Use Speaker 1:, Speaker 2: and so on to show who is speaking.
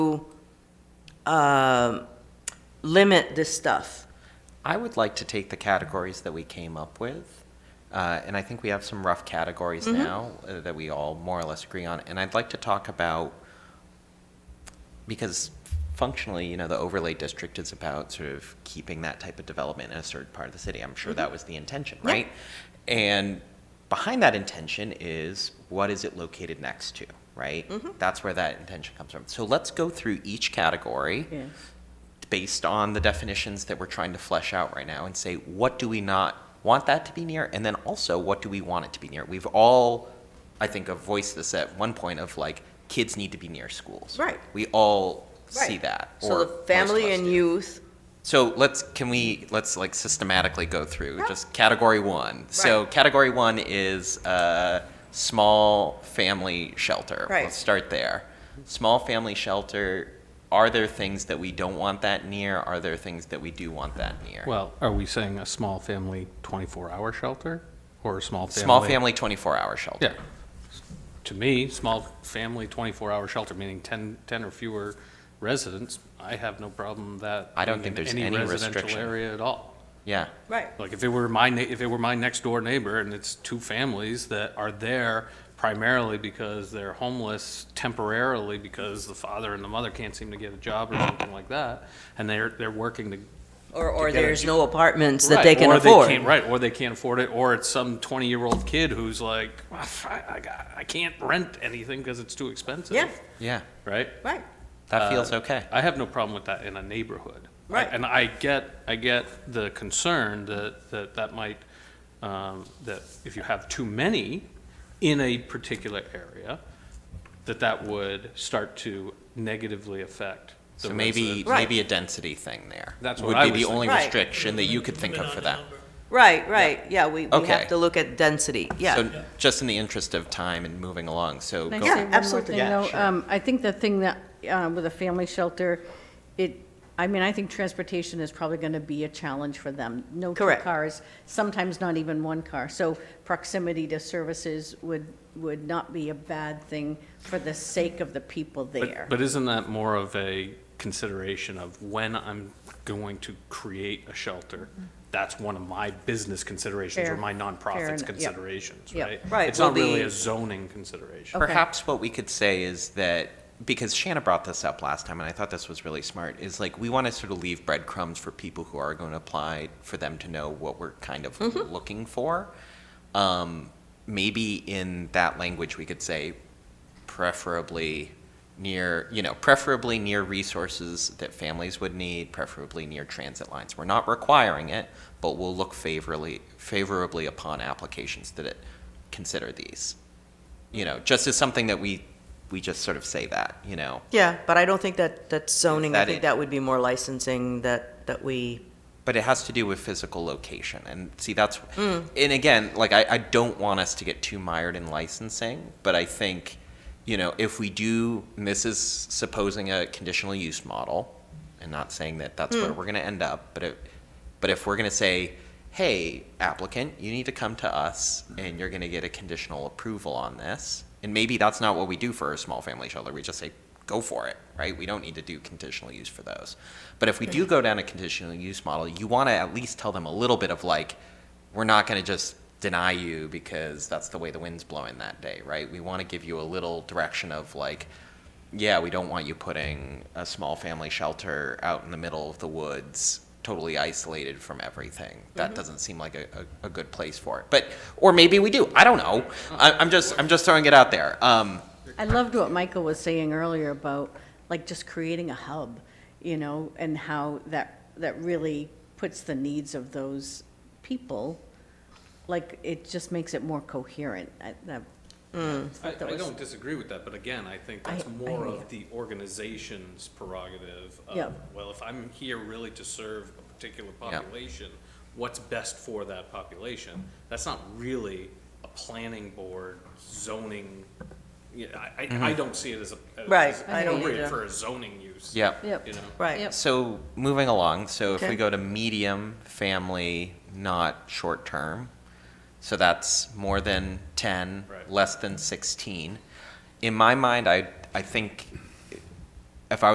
Speaker 1: um, limit this stuff.
Speaker 2: I would like to take the categories that we came up with, uh, and I think we have some rough categories now uh, that we all more or less agree on. And I'd like to talk about because functionally, you know, the overlay district is about sort of keeping that type of development in a certain part of the city. I'm sure that was the intention,
Speaker 1: Yeah.
Speaker 2: right? And behind that intention is what is it located next to, right? That's where that intention comes from. So let's go through each category based on the definitions that we're trying to flesh out right now and say, what do we not want that to be near? And then also, what do we want it to be near? We've all, I think, have voiced this at one point of like, kids need to be near schools.
Speaker 1: Right.
Speaker 2: We all see
Speaker 1: Right.
Speaker 2: that.
Speaker 1: So
Speaker 2: or
Speaker 1: the family
Speaker 2: most of us
Speaker 1: and
Speaker 2: do.
Speaker 1: youth,
Speaker 2: So let's, can we, let's like systematically go through
Speaker 1: Yeah.
Speaker 2: just category one. So
Speaker 1: Right.
Speaker 2: category one is uh, small family shelter.
Speaker 1: Right.
Speaker 2: Let's start there. Small family shelter, are there things that we don't want that near? Are there things that we do want that near?
Speaker 3: Well, are we saying a small family 24-hour shelter or a small family?
Speaker 2: Small family 24 hour shelter.
Speaker 3: Yeah. To me, small family 24-hour shelter, meaning 10, 10 or fewer residents, I have no problem with that.
Speaker 2: I don't think
Speaker 3: being
Speaker 2: there's
Speaker 3: in
Speaker 2: any
Speaker 3: residential
Speaker 2: restriction.
Speaker 3: area at all.
Speaker 2: Yeah.
Speaker 1: right,
Speaker 3: Like if it were my, nei- if it were my next door neighbor and it's two families that are there primarily because they're homeless temporarily because the father and the mother can't seem to get a job or something like that, and they're, they're working to
Speaker 1: or, or
Speaker 3: To get a
Speaker 1: there's
Speaker 3: ju-
Speaker 1: no apartments that
Speaker 3: Right,
Speaker 1: they can
Speaker 3: or
Speaker 1: afford.
Speaker 3: can't- right, or they can't afford it, or it's some twenty-year-old kid who's like, "Ah, f- I, I got- I can't rent anything because it's too expensive.
Speaker 1: Yeah,
Speaker 2: Yeah.
Speaker 3: Right?
Speaker 1: right,
Speaker 2: That
Speaker 3: Uh,
Speaker 2: feels okay.
Speaker 3: I have no problem with that in a neighborhood. I-
Speaker 1: Right.
Speaker 3: And I get, I get the concern that, that that might, um, that if you have too many in a particular area, that that would start to negatively affect the
Speaker 2: So maybe,
Speaker 3: residents.
Speaker 1: Right.
Speaker 2: maybe a density thing there.
Speaker 3: That's what
Speaker 2: would
Speaker 3: I
Speaker 2: be
Speaker 3: was
Speaker 2: the
Speaker 3: thinking.
Speaker 2: only
Speaker 1: Right.
Speaker 2: restriction that you could think of for that.
Speaker 1: right, right, yeah, we, we
Speaker 2: Okay.
Speaker 1: have to look at density, yeah.
Speaker 2: So just in the interest of time and moving along, so
Speaker 4: Can I
Speaker 2: go
Speaker 1: Yeah,
Speaker 4: say one more
Speaker 1: absolutely.
Speaker 4: thing,
Speaker 2: Yeah,
Speaker 4: though?
Speaker 2: sure.
Speaker 4: Um, I think the thing that, uh, with a family shelter, it, I mean, I think transportation is probably going to be a challenge for them. No two
Speaker 1: Correct.
Speaker 4: cars, sometimes not even one car. So proximity to services would, would not be a bad thing for the sake of the people
Speaker 3: But-
Speaker 4: there.
Speaker 3: But isn't that more of a consideration of when I'm going to create a shelter? That's one of my business considerations or
Speaker 4: Fair.
Speaker 3: my
Speaker 4: Fair
Speaker 3: nonprofit's
Speaker 4: enough. Yep.
Speaker 3: considerations,
Speaker 4: Yep.
Speaker 3: right?
Speaker 1: Right,
Speaker 3: It's
Speaker 1: will
Speaker 3: not really
Speaker 1: be-
Speaker 3: a zoning consideration.
Speaker 4: Okay.
Speaker 2: Perhaps what we could say is that, because Shanna brought this up last time, and I thought this was really smart, is like, we want to sort of leave breadcrumbs for people who are going to apply, for them to know what we're kind of looking for. Um, maybe in that language, we could say preferably near, you know, preferably near resources that families would need, preferably near transit lines. We're not requiring it, but we'll look favorably, favorably upon applications that it consider these you know, just as something that we, we just sort of say that, you know.
Speaker 1: Yeah, but I don't think that, that's zoning, I
Speaker 2: that
Speaker 1: think
Speaker 2: it?
Speaker 1: that would be more licensing that, that we,
Speaker 2: But it has to do with physical location. And see, that's, and again, like, I, I don't want us to get too mired in licensing, but I think, you know, if we do, and this is supposing a conditional use model, and not saying that that's where we're going to end up, but if, but if we're going to say, hey, applicant, you need to come to us and you're going to get a conditional approval on this, and maybe that's not what we do for a small family shelter, we just say, go for it, right? We don't need to do conditional use for those. But if we do go down a conditional use model, you want to at least tell them a little bit of like, we're not going to just deny you because that's the way the wind's blowing that day, right? We want to give you a little direction of like, yeah, we don't want you putting a small family shelter out in the middle of the woods, totally isolated from everything. That doesn't seem like a, a, a good place for it. But or maybe we do. I don't know. I, I'm just I'm just throwing it out there. Um,
Speaker 4: I loved what Michael was saying earlier about like just creating a hub, you know, and how that that really puts the needs of those people. Like it just makes it more coherent. I, that,
Speaker 3: I,
Speaker 4: that
Speaker 3: I
Speaker 4: was-
Speaker 3: don't disagree with that, but again, I think
Speaker 4: I-
Speaker 3: that's
Speaker 4: I
Speaker 3: more
Speaker 4: hear you.
Speaker 3: of the organization's prerogative
Speaker 4: Yeah.
Speaker 3: of, well, if I'm here really to serve a particular population, what's best for that population? That's not really a planning board zoning, yeah, I, I, I don't see it as a. as
Speaker 1: Right, I don't
Speaker 3: Appropriate
Speaker 1: either.
Speaker 3: for a zoning use.
Speaker 2: yeah.
Speaker 4: Yep.
Speaker 3: You know?
Speaker 1: right,
Speaker 4: Yep.
Speaker 2: So moving along, so if
Speaker 1: Okay.
Speaker 2: we go to medium family, not short term, so that's more than 10,
Speaker 3: Right.
Speaker 2: less than 16. In my mind, I, I think